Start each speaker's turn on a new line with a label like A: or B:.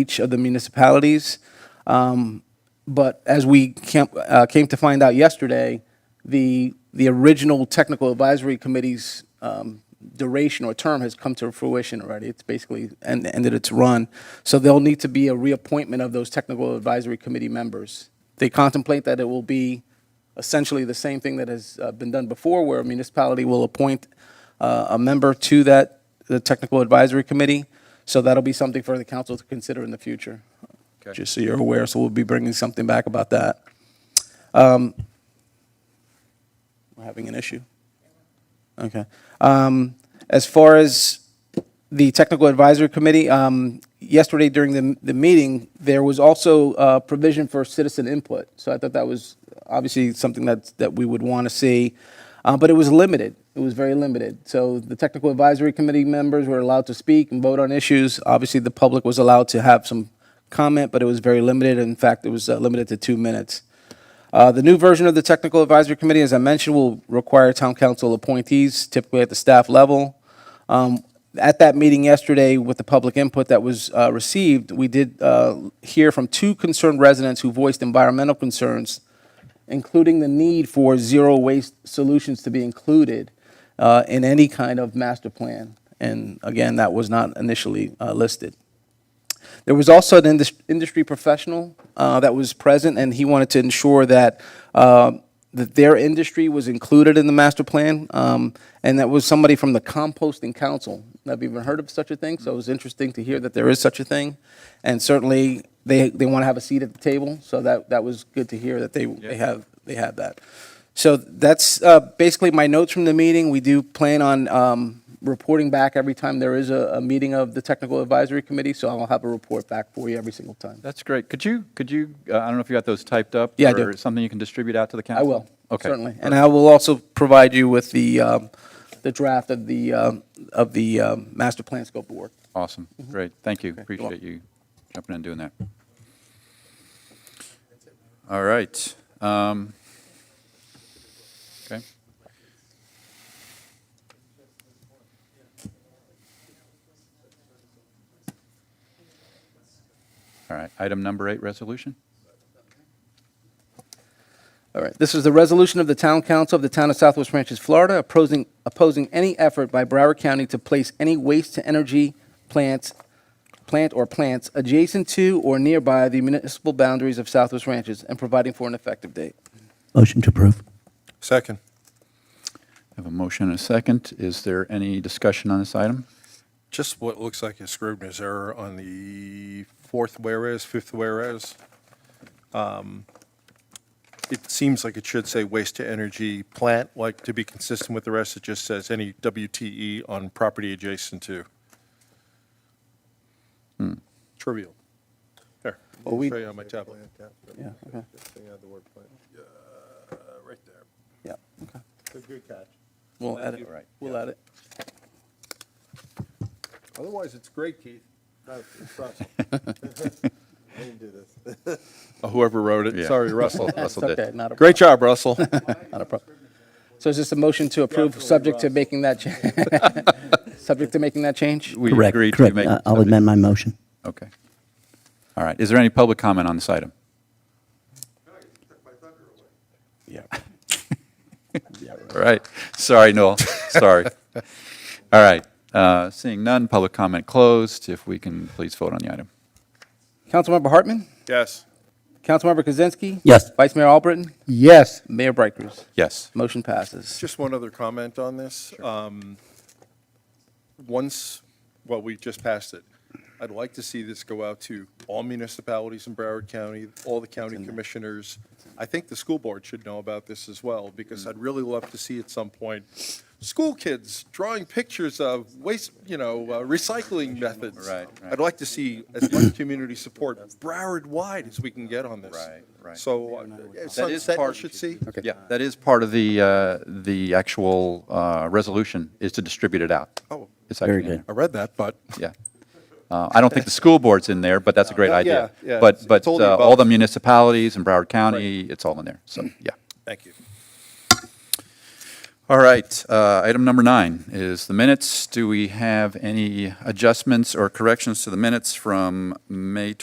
A: each of the municipalities. Um, But as we came, uh, came to find out yesterday, the, the original technical advisory committee's um, duration or term has come to fruition already. It's basically en- ended its run. So there'll need to be a reappointment of those technical advisory committee members. They contemplate that it will be essentially the same thing that has uh, been done before, where a municipality will appoint uh, a member to that, the technical advisory committee. So that'll be something for the council to consider in the future.
B: Okay.
A: Just so you're aware, so we'll be bringing something back about that. Um, We're having an issue. Okay. Um, As far as the Technical Advisory Committee, um, yesterday during the, the meeting, there was also uh, provision for citizen input. So I thought that was obviously something that, that we would want to see, Uh, but it was limited. It was very limited. So the Technical Advisory Committee members were allowed to speak and vote on issues. Obviously, the public was allowed to have some comment, but it was very limited. In fact, it was uh, limited to two minutes. Uh, The new version of the Technical Advisory Committee, as I mentioned, will require town council appointees, typically at the staff level. Um, At that meeting yesterday, with the public input that was uh, received, we did uh, hear from two concerned residents who voiced environmental concerns, including the need for zero-waste solutions to be included uh, in any kind of master plan. And again, that was not initially uh, listed. There was also an indus- industry professional uh, that was present, and he wanted to ensure that, uh, that their industry was included in the master plan. um, And that was somebody from the composting council. I've even heard of such a thing, so it was interesting to hear that there is such a thing. And certainly, they, they want to have a seat at the table, so that, that was good to hear that they, they have, they have that. So that's uh, basically my notes from the meeting. We do plan on um, reporting back every time there is a, a meeting of the Technical Advisory Committee, so I'll have a report back for you every single time.
B: That's great. Could you, could you, uh, I don't know if you got those typed up?
A: Yeah, I do.
B: Or something you can distribute out to the
A: I
B: council?
A: will,
B: Okay.
A: certainly. And I will also provide you with the, um, the draft of the, um, of the um, master plan scope of work.
B: Awesome. Great. Thank you. Appreciate
A: Mm-hmm. welcome.
B: you jumping in and doing that. All right. Um, Okay. All right. Item number eight, resolution?
A: All right, this is the resolution of the Town Council of the Town of Southwest Ranches, Florida, opposing, opposing any effort by Broward County to place any waste-to-energy plants, plant or plants adjacent to or nearby the municipal boundaries of Southwest Ranches and providing for an effective date.
C: Motion to approve.
D: Second.
B: I have a motion and a second. Is there any discussion on this item?
D: Just what looks like a Scrivener's error on the fourth whereas, fifth whereas. Um, It seems like it should say waste to energy plant, like to be consistent with the rest, it just says any WTE on property adjacent to. Trivial. There.
A: Hmm. Well, we-
D: Show you on my tablet.
A: Yeah, okay,
D: Uh, Right there.
A: yeah, okay.
D: good catch.
A: We'll add it,
B: you're right.
A: we'll add it.
D: Otherwise, it's great, Keith.
E: It's
D: Uh, Whoever wrote it,
B: Yeah.
D: sorry, Russell.
A: It's
B: Russell did.
A: okay, not a,
D: Great job, Russell.
A: not a problem. So is this a motion to approve, subject to making that, cha- subject to making that change?
B: We
C: Correct,
B: agreed to
C: correct.
B: make-
C: Uh, I'll amend my motion.
B: Okay. All right. Is there any public comment on this item?
A: Yeah.
B: All right. Sorry, Noel. Sorry. All right. Uh, Seeing none, public comment closed. If we can please vote on the item.
A: Councilmember Hartman?
D: Yes.
A: Councilmember Kozinski?
C: Yes.
A: Vice Mayor Albritton?
E: Yes.
A: Mayor Brighters?
B: Yes.
A: Motion passes.
D: Just one other comment on this. Um, Once, well, we just passed it. I'd like to see this go out to all municipalities in Broward County, all the county commissioners. I think the school board should know about this as well, because
B: Mm.
D: I'd really love to see at some point, school kids drawing pictures of waste, you know, uh, recycling methods.
B: Right, right.
D: I'd like to see as much community support Broward-wide as we can get on this.
B: Right, right.
D: So uh,
B: is
D: Sunset
B: part-
D: should see.
B: Yeah, that is part of the, uh, the actual uh, resolution is to distribute it out.
D: Oh,
B: It's
C: Very
B: actually in
C: good.
D: I read that, but.
B: there. Yeah. Uh, I don't think the school board's in there, but that's a great
D: Yeah,
B: idea.
D: yeah, yeah.
B: But,
D: It's-
B: but
D: it's all the
B: uh, all
D: above.
B: the municipalities in Broward County, it's all in there. So, yeah.
D: Thank you.
B: All right, uh, item number nine is the minutes. Do we have any adjustments or corrections to the minutes from May